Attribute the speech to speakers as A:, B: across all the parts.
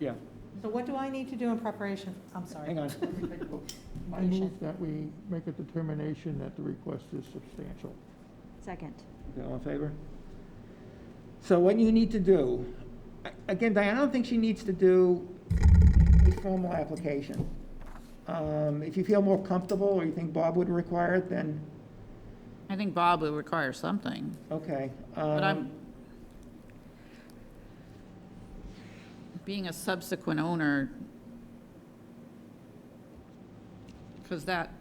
A: Yeah,
B: So what do I need to do in preparation? I'm sorry.
A: hang on.
C: I move that we make a determination that the request is substantial.
D: Second.
A: Okay, All in favor? So what you need to do, a- again, Diane, I don't think she needs to do a formal application. Um, If you feel more comfortable, or you think Bob would require it, then,
E: I think Bob would require something,
A: okay. um,
E: but I'm, being a subsequent owner, because that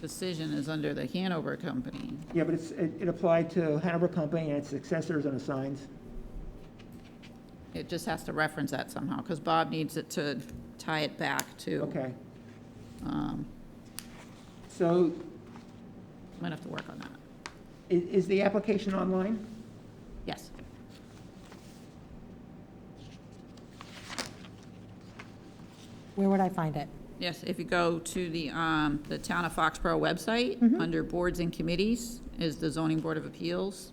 E: decision is under the Hanover Company.
A: Yeah, but it's, it it applied to Hanover Company and its successors and assigns.
E: It just has to reference that somehow, because Bob needs it to tie it back to.
A: Okay,
E: um,
A: so
E: Might have to work on that.
A: i- is the application online?
E: Yes.
B: Where would I find it?
E: Yes, if you go to the, um, the Town of Foxborough website,
B: Mm-hmm.
E: under Boards and Committees is the Zoning Board of Appeals.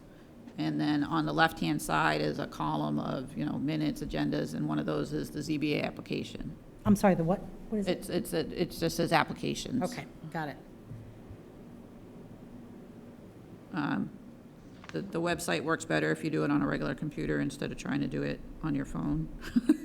E: And then on the left-hand side is a column of, you know, minutes, agendas, and one of those is the ZBA application.
B: I'm sorry, the what? What is it?
E: It's, it's, a- it just says applications.
B: Okay, got it.
E: Um, The, the website works better if you do it on a regular computer instead of trying to do it on your phone,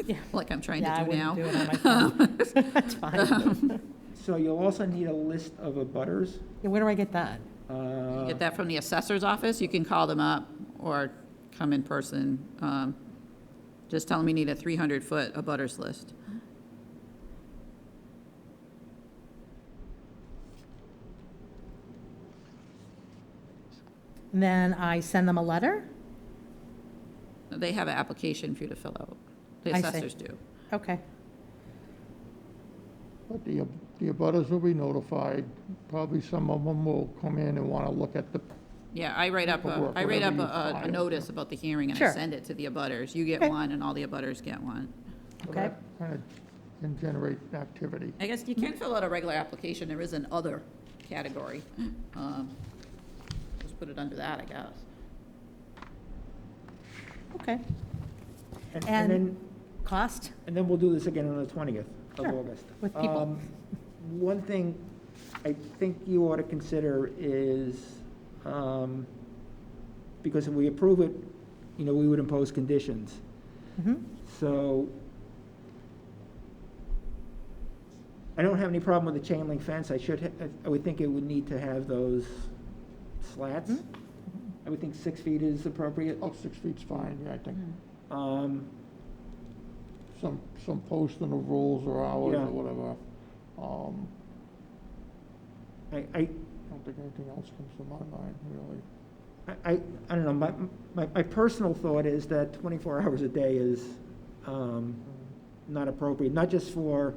B: Yeah.
E: like I'm trying
B: Yeah, I
E: to do now.
B: wouldn't do it on my phone. That's fine.
A: So you'll also need a list of abutters.
B: Yeah, Where do I get that?
A: uh,
E: Get that from the assessor's office, you can call them up or come in person. Um, Just tell them you need a 300-foot abutters list.
B: And then I send them a letter?
E: They have an application for you to fill out. The
B: I see.
E: assessors do.
B: Okay,
C: But the, the abutters will be notified. Probably some of them will come in and want to look at the,
E: Yeah, I write up, a-
C: Paperwork,
E: I write up
C: whatever
E: a
C: you
E: a- a
C: file.
E: notice about the hearing, and I
B: Sure.
E: send it to the abutters. You get
B: Okay.
E: one, and all the abutters get one.
B: okay.
C: kind of, can generate activity.
E: I guess you
B: Mm-hmm.
E: can fill out a regular application, there is an other category. Um, Just put it under that, I guess.
B: Okay.
A: And and
B: And-
A: then,
B: Cost?
A: and then we'll do this again on the 20th of
B: Sure,
A: August.
B: with people.
A: Um, One thing I think you ought to consider is, um, because if we approve it, you know, we would impose conditions.
B: Mhm.
A: So I don't have any problem with the chain link fence. I should, ha- I would think it would need to have those slats.
B: Mm-hmm.
A: I would think six feet is appropriate.
C: Oh, six feet's fine, yeah, I think.
B: Mm-hmm.
E: Hmm.
A: Um,
C: Some, some posts in the rules or hours
A: Yeah.
C: or whatever. Um,
A: I, I,
C: I don't think anything else comes to my mind, really.
A: I, I- I don't know, my, my, my personal thought is that twenty-four hours a day is, um, not appropriate, not just for,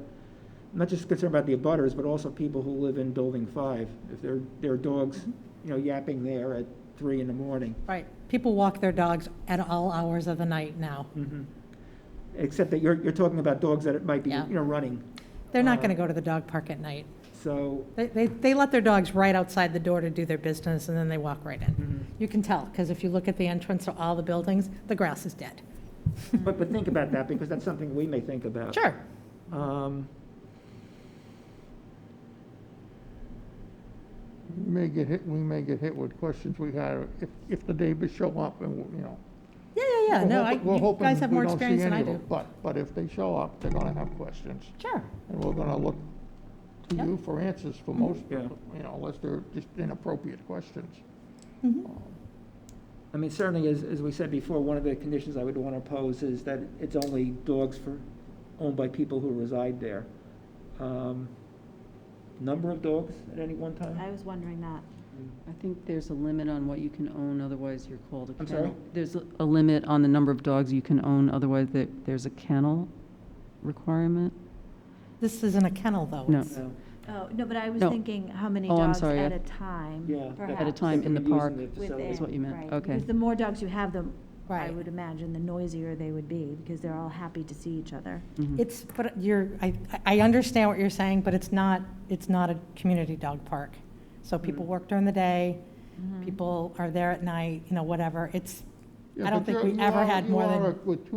A: not just concerned about the abutters, but also people who live in building five. If their, their dogs, you know, yapping there at three in the morning.
B: Right, people walk their dogs at all hours of the night now.
A: Except that you're, you're talking about dogs that it might be, you
B: Yeah.
A: know, running.
B: They're not
A: Uh,
B: going to go to the dog park at night.
A: So,
B: They, they, they let their dogs right outside the door to do their business, and then they walk right
A: Mm-hmm.
B: in. You can tell, because if you look at the entrance to all the buildings, the grass is dead.
A: but, but think about that, because that's something we may think about.
B: Sure,
A: Um,
C: We may get hit, we may get hit with questions we have, if, if the neighbors show up and, you know.
B: yeah, yeah, yeah,
C: We're
B: no, I,
C: hoping- we're
B: you
C: hoping
B: guys have
C: we
B: more
C: don't see
B: experience than
C: any
B: I
C: of
B: do.
C: them, But, but if they show up, they're gonna have questions,
B: Sure,
C: and we're gonna look to
B: Yep.
C: you for answers
B: Mm-hmm.
C: for most,
A: Yeah.
C: you know, unless they're just inappropriate questions.
B: Mm-hmm.
C: Um,
A: I mean, certainly, as, as we said before, one of the conditions I would want to pose is that it's only dogs for, owned by people who reside there. Um, Number of dogs at any one time?
D: I was wondering that.
F: I think there's a limit on what you can own, otherwise you're called a
A: I'm
F: kennel.
A: sorry?
F: There's a a limit on the number of dogs you can own, otherwise there- there's a kennel requirement.
B: this isn't a kennel, though.
F: No.
B: It's-
A: No.
D: Oh, no, but I was
F: No.
D: thinking how many
F: Oh, I'm
D: dogs
F: sorry,
D: at
F: I-
D: a time.
A: Yeah. that-
D: perhaps,
F: At a time in the
A: Using
F: park.
A: facility.
F: what you meant.
D: within, right.
F: Okay.
D: Because the more dogs you have, the, I
B: Right.
D: would imagine, the noisier they would be, because they're all happy to see each other.
F: Mm-hmm.
B: It's, but you're, I, I understand what you're saying, but it's not, it's not a community dog park. So
C: Mm.
B: people work during the day, Mm-hmm. people are there at night, you know, whatever. It's,
C: Yeah,
B: I don't
C: but
B: think
C: you're-
B: we
C: you
B: ever
C: are-
B: had
C: you
B: more
C: are
B: than-
C: a- With two